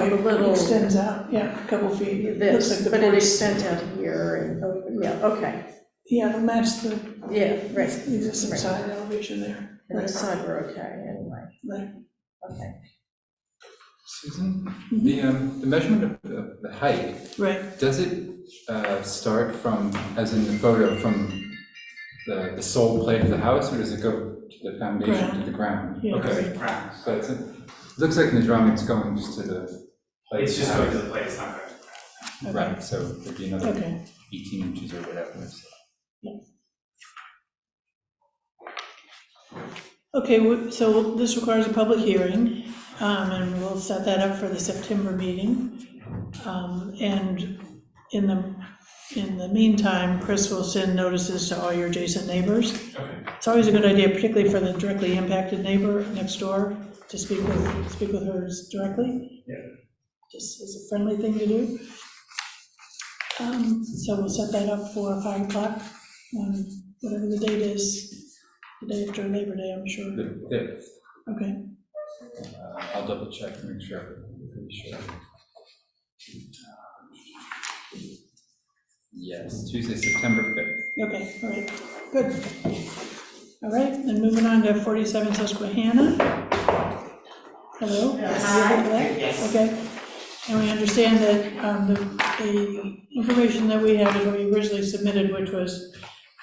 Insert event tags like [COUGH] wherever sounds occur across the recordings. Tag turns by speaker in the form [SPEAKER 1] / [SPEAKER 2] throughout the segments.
[SPEAKER 1] it
[SPEAKER 2] little,
[SPEAKER 1] extends out, yeah, a couple feet. It looks like
[SPEAKER 2] this,
[SPEAKER 1] the
[SPEAKER 2] but it
[SPEAKER 1] porch.
[SPEAKER 2] extends out here and, yeah, okay,
[SPEAKER 1] Yeah, it'll match the
[SPEAKER 2] yeah, right.
[SPEAKER 1] existing
[SPEAKER 2] Right.
[SPEAKER 1] side elevation there.
[SPEAKER 2] And this side we're okay anyway.
[SPEAKER 1] Right.
[SPEAKER 2] Okay.
[SPEAKER 3] Susan, the, um, the measurement of the, the height,
[SPEAKER 1] Right,
[SPEAKER 3] does it, uh, start from, as in the photo, from the, the sole plate of the house, or does it go to the foundation, to the ground?
[SPEAKER 1] Yeah.
[SPEAKER 3] Okay,
[SPEAKER 4] Grounds.
[SPEAKER 3] so it's, it looks like in the drawing, it's going just to the plate of
[SPEAKER 4] It's
[SPEAKER 3] the
[SPEAKER 4] just going to
[SPEAKER 3] house.
[SPEAKER 4] the plate, it's not going to the ground.
[SPEAKER 3] Right, so it'd be another
[SPEAKER 1] okay.
[SPEAKER 3] eighteen inches or whatever, so.
[SPEAKER 1] Okay, we- so this requires a public hearing, um, and we'll set that up for the September meeting. Um, And in the, in the meantime, Chris will send notices to all your adjacent neighbors.
[SPEAKER 4] Okay.
[SPEAKER 1] It's always a good idea, particularly for the directly impacted neighbor next door, to speak with, speak with hers directly.
[SPEAKER 4] Yeah.
[SPEAKER 1] Just as a friendly thing to do. Um, So we'll set that up for five o'clock, um, whatever the date is, the day after Labor Day, I'm sure.
[SPEAKER 3] The fifth,
[SPEAKER 1] Okay,
[SPEAKER 3] uh, I'll double check and make sure, I'm pretty sure. Yes, Tuesday, September fifth.
[SPEAKER 1] okay, all right, good. All right, then moving on to 47 Susquehanna. Hello? Yes. Okay, and we understand that um, the, the information that we have is what we originally submitted, which was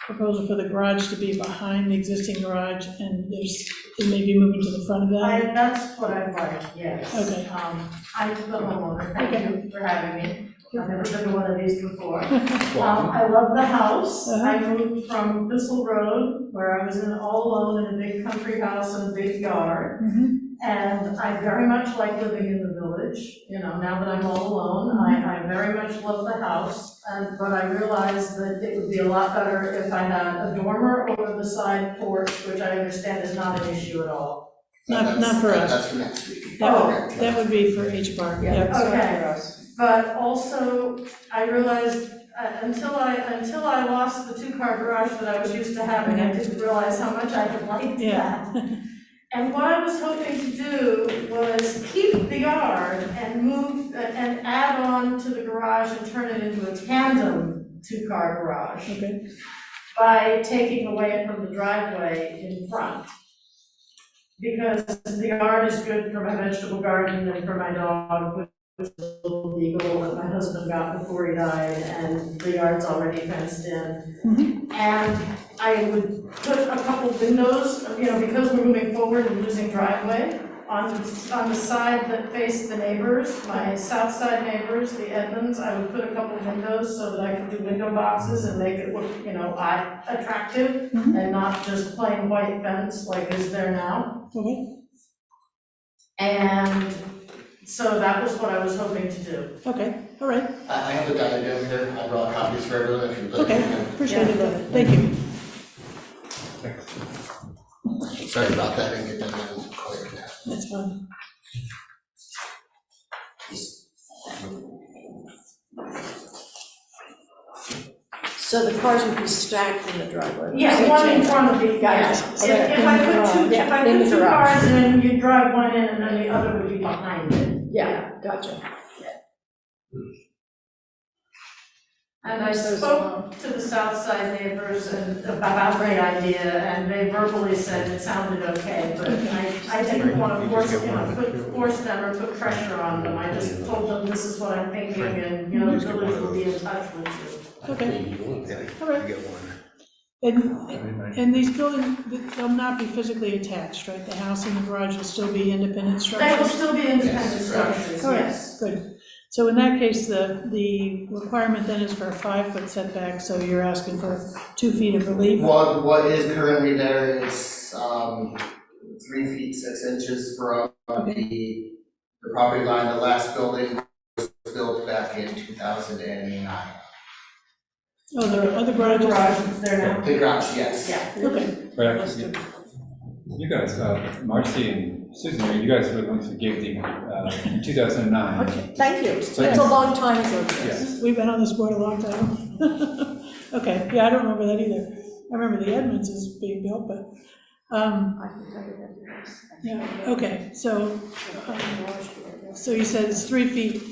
[SPEAKER 1] proposal for the garage to be behind the existing garage, and there's, it may be moving to the front of
[SPEAKER 5] I,
[SPEAKER 1] that.
[SPEAKER 5] that's what I wanted, yes.
[SPEAKER 1] Okay.
[SPEAKER 5] Um, I'm the homeowner, thank you for having me. I've never been to one of these
[SPEAKER 1] [LAUGHS]
[SPEAKER 5] before. Um,
[SPEAKER 3] Well,
[SPEAKER 5] I love the house.
[SPEAKER 1] Uh-huh.
[SPEAKER 5] I moved from Thistle Road, where I was in all alone in a big country house and a big yard.
[SPEAKER 1] Mhm.
[SPEAKER 5] And I very much like living in the village, you know, now that I'm all alone, I, I
[SPEAKER 1] Mm-hmm.
[SPEAKER 5] very much love the house. And, but I realized that it would be a lot better if I had a dormer over the side porch, which I understand is not an issue at all.
[SPEAKER 1] Not, not for us,
[SPEAKER 6] That's for next week.
[SPEAKER 1] that would, that would be for H bar, yeah.
[SPEAKER 5] Okay. But also, I realized, uh, until I, until I lost the two-car garage that I was used to having, I didn't realize how much I had liked that.
[SPEAKER 1] Yeah,
[SPEAKER 5] And what I was hoping to do was keep the yard and move, uh, and add on to the garage and turn it into a tandem two-car garage
[SPEAKER 1] okay,
[SPEAKER 5] by taking away from the driveway in front. Because the yard is good for my vegetable garden and for my dog, which is a little eagle that my husband got before he died, and the yard's already fenced in. And I would put a couple windows, you know, because we're moving forward and losing driveway, on, on the side that faced the neighbors, my south side neighbors, the Edmonds, I would put a couple windows so that I could do window boxes and make it look, you know, eye attractive
[SPEAKER 2] Mm-hmm.
[SPEAKER 1] Mhm.
[SPEAKER 5] and not just plain white fence like is there now.
[SPEAKER 1] okay,
[SPEAKER 2] Mm-hmm.
[SPEAKER 5] And so that was what I was hoping to do.
[SPEAKER 1] okay, all right,
[SPEAKER 6] I, I have a guide down here, I brought copies for everyone, if you'd like.
[SPEAKER 1] okay, appreciate it, thank you.
[SPEAKER 6] Sorry about that, I didn't get that down clear now.
[SPEAKER 1] That's fine.
[SPEAKER 2] So the cars would be stacked in the driveway?
[SPEAKER 5] Yeah, one in front of the, yeah.
[SPEAKER 2] Gotcha.
[SPEAKER 5] If if I put two, if I
[SPEAKER 2] Yeah, in the
[SPEAKER 5] put two
[SPEAKER 2] garage.
[SPEAKER 5] cars in, you'd drive one in and then the other would be behind it.
[SPEAKER 2] Yeah, gotcha.
[SPEAKER 5] And I spoke to the south side neighbors and about the idea, and they verbally said it sounded okay, but I, I didn't want to force, you know, put, force them or put pressure on them, I just told them this is what I'm thinking, and, you know, the village will be in touch with you.
[SPEAKER 1] Okay. All right. And, and these buildings, they'll not be physically attached, right? The house and the garage will still be independent
[SPEAKER 5] They will
[SPEAKER 1] structures?
[SPEAKER 5] still be independent structures,
[SPEAKER 1] All right,
[SPEAKER 5] yes.
[SPEAKER 1] Good. So in that case, the, the requirement then is for a five-foot setback, so you're asking for two feet of relief?
[SPEAKER 6] What, what is currently there is, um, three feet, six inches from the, the property line, the last building was built back in two thousand and nine.
[SPEAKER 1] Oh, there are other
[SPEAKER 5] Garage
[SPEAKER 1] garages?
[SPEAKER 5] is there now,
[SPEAKER 6] The garage, yes.
[SPEAKER 5] yeah.
[SPEAKER 1] Okay,
[SPEAKER 3] But actually, you guys, uh, Marcy and Susan, you guys were the ones who gave the, uh, 2009.
[SPEAKER 2] Okay, thank you. It's
[SPEAKER 3] So-
[SPEAKER 2] a long time ago.
[SPEAKER 3] Yes.
[SPEAKER 1] we've been on this board a long [LAUGHS] time. Okay, yeah, I don't remember that either. I remember the Edmonds is being built, but, Um,
[SPEAKER 2] I can tell you that.
[SPEAKER 1] yeah, okay, so, um, so you said it's three feet